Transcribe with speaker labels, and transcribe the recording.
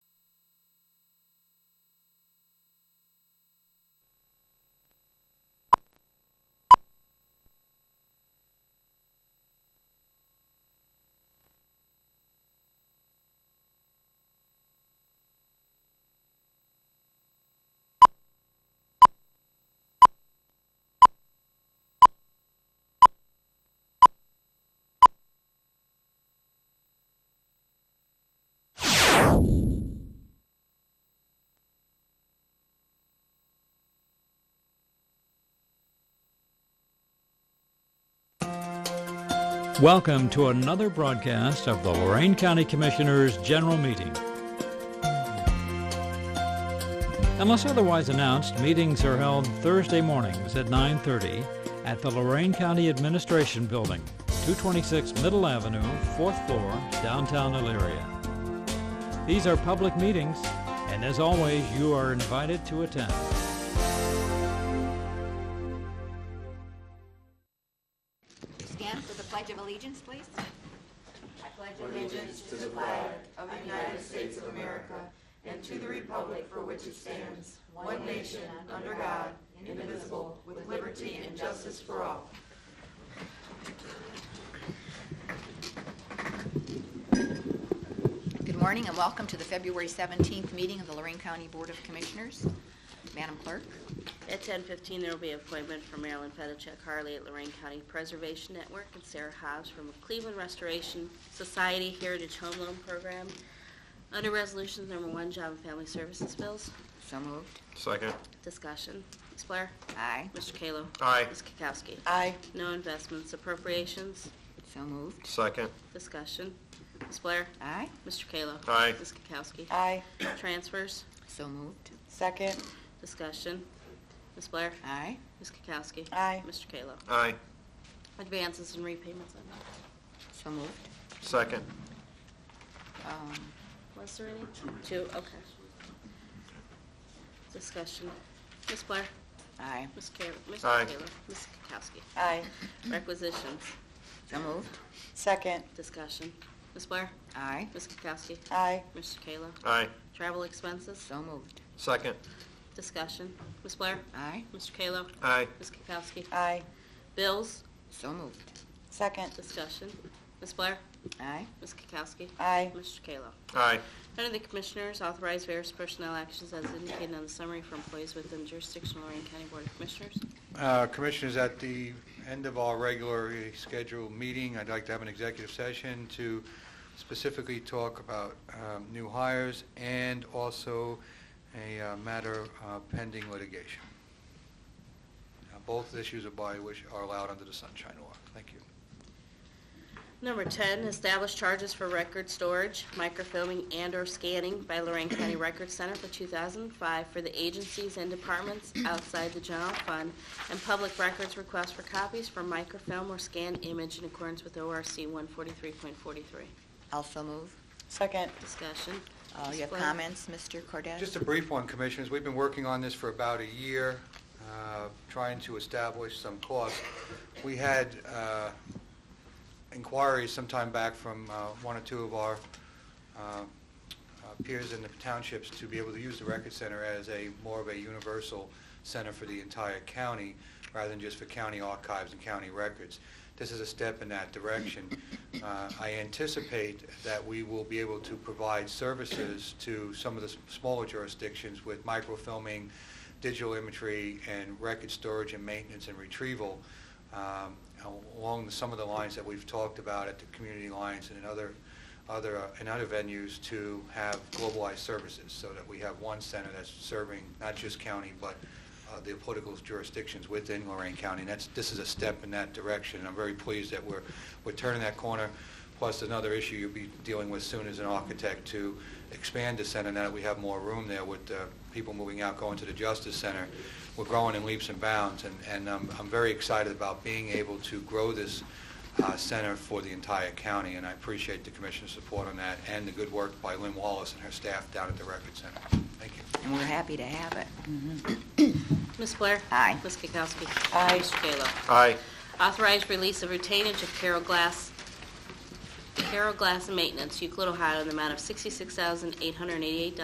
Speaker 1: Welcome to another broadcast of the Lorain County Commissioners' General Meeting. Unless otherwise announced, meetings are held Thursday mornings at 9:30 at the Lorain County Administration Building, 226 Middle Avenue, 4th floor, downtown Elyria. These are public meetings, and as always, you are invited to attend.
Speaker 2: Stand for the Pledge of Allegiance, please. Good morning and welcome to the February 17th meeting of the Lorraine County Board of Commissioners. Madam Clerk,
Speaker 3: At 10:15, there will be an appointment for Marilyn Fedicek Harley at Lorraine County Preservation Network and Sarah Hobbs from Cleveland Restoration Society Heritage Home Loan Program. Under Resolutions Number One, Job and Family Services Bills,
Speaker 2: so moved.
Speaker 4: Second.
Speaker 3: discussion. Ms. Blair?
Speaker 2: Aye,
Speaker 3: Mr. Kayla?
Speaker 4: Aye.
Speaker 3: Ms. Kukowski?
Speaker 5: Aye,
Speaker 3: No investments, appropriations,
Speaker 2: so moved.
Speaker 4: Second.
Speaker 3: discussion. Ms. Blair?
Speaker 2: Aye,
Speaker 3: Mr. Kayla?
Speaker 4: Aye.
Speaker 3: Ms. Kukowski?
Speaker 5: aye,
Speaker 3: Transfers,
Speaker 2: so moved.
Speaker 5: second,
Speaker 3: discussion. Ms. Blair?
Speaker 2: Aye,
Speaker 3: Ms. Kukowski?
Speaker 5: Aye.
Speaker 3: Mr. Kayla?
Speaker 4: Aye.
Speaker 3: Advances and repayments, I know.
Speaker 2: so moved.
Speaker 4: Second.
Speaker 2: Um,
Speaker 3: Was there any? Two, okay. Discussion. Ms. Blair?
Speaker 2: Aye,
Speaker 3: Ms. Kayla? Mr.
Speaker 4: Aye.
Speaker 3: Kayla? Ms. Kukowski?
Speaker 5: aye,
Speaker 3: Requisitions.
Speaker 2: so moved.
Speaker 5: second,
Speaker 3: Discussion. Ms. Blair?
Speaker 2: Aye,
Speaker 3: Ms. Kukowski?
Speaker 5: aye,
Speaker 3: Mr. Kayla?
Speaker 4: Aye.
Speaker 3: Travel expenses.
Speaker 2: so moved.
Speaker 4: Second.
Speaker 3: Discussion. Ms. Blair?
Speaker 2: Aye,
Speaker 3: Mr. Kayla?
Speaker 4: Aye.
Speaker 3: Ms. Kukowski?
Speaker 5: aye,
Speaker 3: Bills.
Speaker 2: so moved.
Speaker 5: second,
Speaker 3: Discussion. Ms. Blair?
Speaker 2: Aye,
Speaker 3: Ms. Kukowski?
Speaker 5: aye,
Speaker 3: Mr. Kayla?
Speaker 4: Aye.
Speaker 3: Under the Commissioners, authorize various personnel actions as indicated on the summary for employees within jurisdiction of Lorraine County Board of Commissioners.
Speaker 6: Uh, Commissioners, at the end of our regularly scheduled meeting, I'd like to have an executive session to specifically talk about um, new hires and also a uh, matter uh, pending litigation. Now, Both issues are by which are allowed under the Sunshine Law. Thank you.
Speaker 3: Number 10, establish charges for record storage, microfilming, and/or scanning by Lorraine County Record Center for 2005 for the agencies and departments outside the general fund, and public records request for copies for microfilm or scanned image in accordance with ORC 143.43.
Speaker 2: also move.
Speaker 5: second,
Speaker 3: Discussion.
Speaker 2: Uh, You have
Speaker 3: Display.
Speaker 2: comments, Mr. Cordez?
Speaker 6: Just a brief one, Commissioners. We've been working on this for about a year, uh, trying to establish some costs. We had uh, inquiries some time back from uh, one or two of our uh, uh, peers in the townships to be able to use the Record Center as a, more of a universal center for the entire county, rather than just for county archives and county records. This is a step in that direction. Uh, I anticipate that we will be able to provide services to some of the s- smaller jurisdictions with microfilming, digital imagery, and record storage and maintenance and retrieval um, along the- some of the lines that we've talked about at the community lines and in other, other, uh, in other venues to have globalized services, so that we have one center that's serving not just county, but uh, the political jurisdictions within Lorraine County. And that's, this is a step in that direction, and I'm very pleased that we're, we're turning that corner. Plus, another issue you'll be dealing with soon as an architect to expand the center, now that we have more room there with uh, people moving out, going to the Justice Center. We're growing in leaps and bounds, and, and um, I'm very excited about being able to grow this uh, center for the entire county, and I appreciate the Commission's support on that, and the good work by Lynn Wallace and her staff down at the Record Center. Thank you.
Speaker 2: And we're happy to have it.
Speaker 3: Ms. Blair?
Speaker 2: Aye.
Speaker 3: Ms. Kukowski?
Speaker 5: Aye.
Speaker 3: Mr. Kayla?
Speaker 4: Aye.
Speaker 3: Authorized release of retainage of Carol Glass, Carol Glass Maintenance, Euclid, Ohio, in the amount of $66,888